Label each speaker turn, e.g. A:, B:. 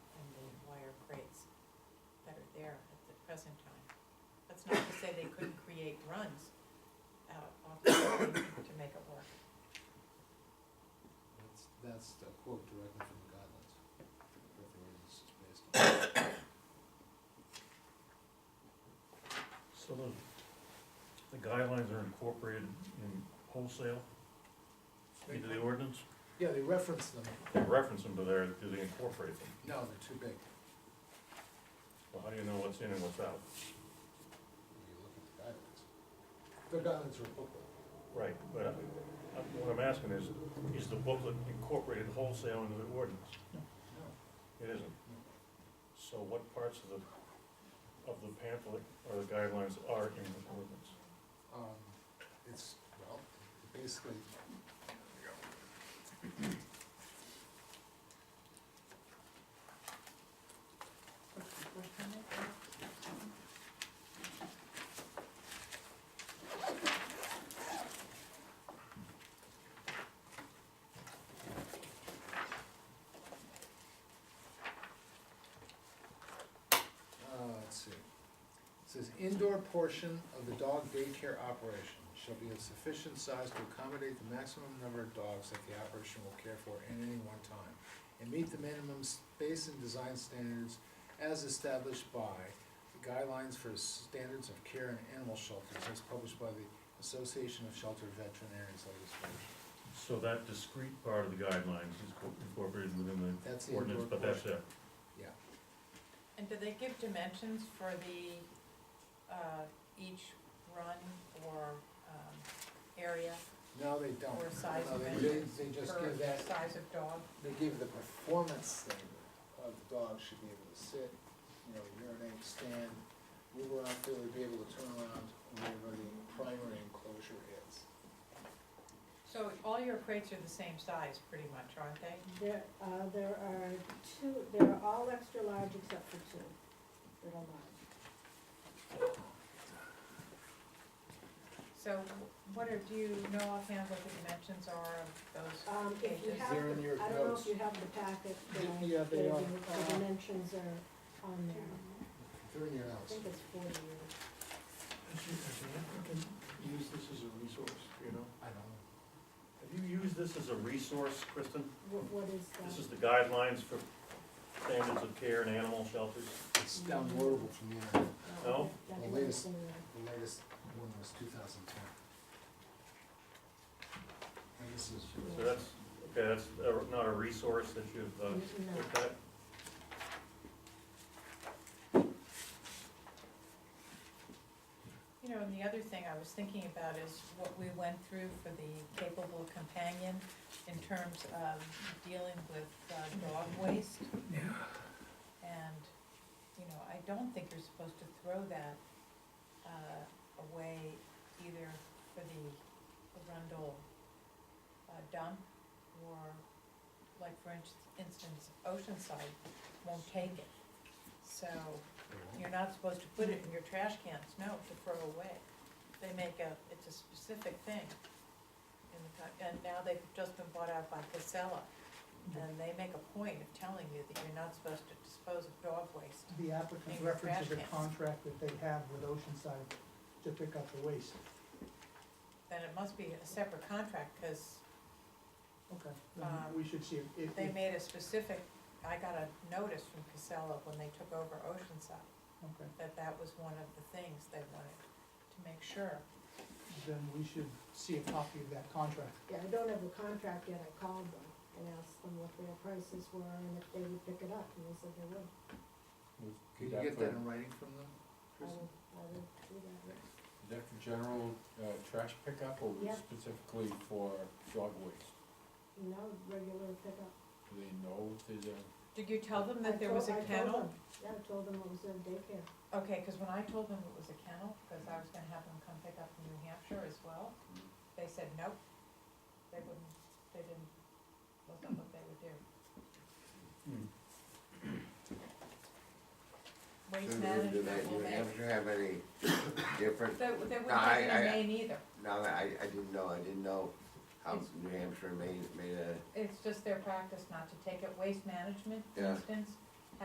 A: there at the present time. That's not to say they couldn't create runs out off the road to make it work.
B: That's, that's the quote directly from the guidelines, that the ordinance is based on.
C: So the, the guidelines are incorporated in wholesale into the ordinance?
B: Yeah, they reference them,
C: They reference them, but they're, do they incorporate them?
B: no, they're too big,
C: Well, how do you know what's in and what's out?
B: when you look at the guidelines. The guidelines are a booklet.
C: Right, but I- I- what I'm asking is, is the booklet incorporated wholesale into the ordinance?
B: No.
C: It isn't. So what parts of the, of the pamphlet or the guidelines are in the ordinance?
B: Um, it's, well, basically. Uh, let's see. It Says indoor portion of the dog daycare operation shall be of sufficient size to accommodate the maximum number of dogs that the operation will care for at any one time. And meet the minimum space and design standards as established by the guidelines for standards of care in animal shelters as published by the Association of Shelter Veterinarians legislation.
C: So that discrete part of the guidelines is co- incorporated within
B: That's the
C: the ordinance,
B: indoor
C: but that's
B: portion.
C: it.
B: Yeah,
A: And do they give dimensions for the, uh, each run or, um, area
B: no, they don't.
A: or size
B: No,
A: of
B: they-
A: engine?
B: They, they just
A: per
B: give that
A: Size of dog?
B: they give the performance standard of the dog should be able to sit, you know, urinate, stand, move around freely, be able to turn around wherever the primary enclosure is.
A: So all your crates are the same size, pretty much, aren't they?
D: There, uh, there are two, they're all extra large except for two that are large.
A: So what are, do you know offhand what the dimensions are of those?
D: Um, if you
A: Is
D: have,
B: there in your
D: the- I don't know
B: notes?
D: if you have the packet, the,
B: Yeah,
D: the the dimensions are on there.
B: They're in your
D: I
B: house.
D: think it's forty units.
E: Has you- has the applicant used this as a resource, do you know?
B: I don't know.
C: Have you used this as a resource, Kristen?
D: What, what is
C: This is
D: that?
C: the guidelines for standards of care in animal shelters.
B: It's downloadable from the internet.
C: No?
D: Uh, That
B: The
D: doesn't
B: latest.
D: say that.
B: The latest one was two thousand ten. And this is.
C: So that's, okay, that's uh, not a resource that you've, uh,
D: No.
C: looked at?
A: You know, and the other thing I was thinking about is what we went through for the capable companion in terms of dealing with uh, dog waste. And, you know, I don't think you're supposed to throw that uh, away either for the Arundel uh, dump or, like, for inst- instance, Oceanside won't take it. So, you're not supposed to put it in your trash cans, no, to throw away. They make a, it's a specific thing. in the co- And now they've just been bought out by Casella,
D: Mm-hmm.
A: and they make a point of telling you that you're not supposed to dispose of dog waste.
F: The
A: Maybe
F: applicant
A: trash
F: references a
A: cans. contract
F: contract that they have with Oceanside to pick up the waste.
A: Then it must be a separate contract, because
F: Okay.
A: then Um,
F: We should see if, if,
D: Mm-hmm.
A: they made a specific, I got a notice from Casella when they took over Oceanside,
F: okay,
A: that that was one of the things they wanted to make sure.
F: then we should see a copy of that contract.
D: Yeah, I don't have the contract yet, I called them and asked them what their prices were and if they would pick it up, and they said they would.
B: Can you get that in writing from them?
D: I
B: Kristen?
D: would, I would do that.
G: That for general uh, trash pickup or was
D: Yeah.
G: it specifically for dog waste?
D: No, regular pickup.
G: Do they know if there's a,
A: Did you tell them
D: I
A: that there
D: told-
A: was a
D: I told
A: kennel?
D: them. Yeah, I told them it was in daycare.
A: Okay, because when I told them it was a kennel, because I was gonna have them come pick up from New Hampshire as well, they said nope. They wouldn't, they didn't, wasn't what they would do.
C: Hmm.
A: Waste
H: Do they,
A: management will
H: do
A: make,
H: you have any different,
A: they, they
H: No,
A: wouldn't
H: I-
A: take it
H: I-
A: in Maine either.
H: no, I, I didn't know, I didn't know how
A: It's-
H: New Hampshire made, made a,
A: It's just their practice not to take it. Waste management, for
H: Yeah.
A: instance,